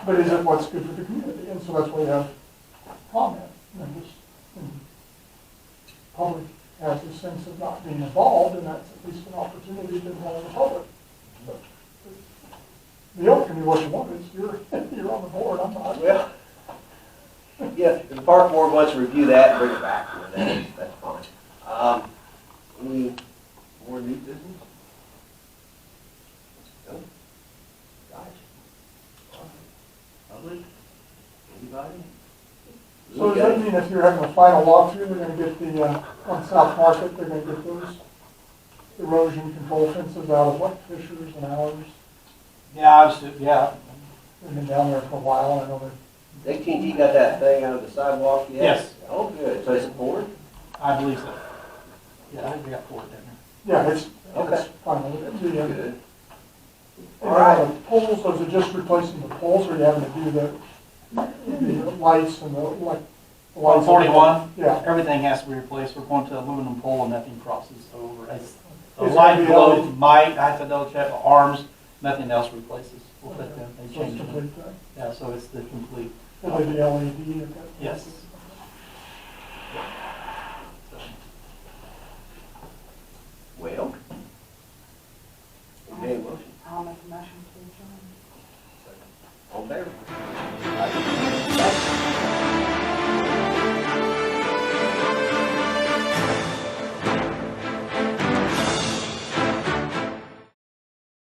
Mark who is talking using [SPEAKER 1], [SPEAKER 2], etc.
[SPEAKER 1] But is it what's good for the community? And so that's why you have lawmen, members, and public has this sense of not being involved, and that's at least an opportunity to involve the public. But The oath can be what you want, it's, you're, you're on the board, I'm not.
[SPEAKER 2] Well, yeah, if the park board wants to review that, bring it back, to them, that's, that's fine. Um, any more new business? No? Guys? Public? Anybody?
[SPEAKER 1] So does that mean if you're having a final walkthrough, they're gonna get the, uh, on South Market, they're gonna get those erosion control fences out of what, Fishers and ours?
[SPEAKER 3] Yeah, I was, yeah,
[SPEAKER 1] They've been down there for a while, I know they're
[SPEAKER 2] AT&T got that thing out of the sidewalk yet?
[SPEAKER 3] Yes.
[SPEAKER 2] Oh, good, so it's a board?
[SPEAKER 3] I believe so. Yeah, I think we got four down there.
[SPEAKER 1] Yeah, it's,
[SPEAKER 2] Okay.
[SPEAKER 1] it's final. The, uh,
[SPEAKER 2] Good.
[SPEAKER 1] and now the poles, those are just replacing the poles, or you having to do the, the lights and the, like. the lights on
[SPEAKER 3] On
[SPEAKER 1] the-
[SPEAKER 3] forty-one?
[SPEAKER 1] Yeah.
[SPEAKER 3] Everything has to be replaced, we're going to aluminum pole and nothing crosses over. It's- The
[SPEAKER 1] Is it
[SPEAKER 3] light
[SPEAKER 1] the
[SPEAKER 3] glow
[SPEAKER 1] LED?
[SPEAKER 3] might, I have to double check, the arms, nothing else replaces. We'll put them, they
[SPEAKER 1] So it's
[SPEAKER 3] change them.
[SPEAKER 1] complete, uh, E
[SPEAKER 3] Yeah, so it's the complete,
[SPEAKER 1] Will they be LED?
[SPEAKER 3] yes.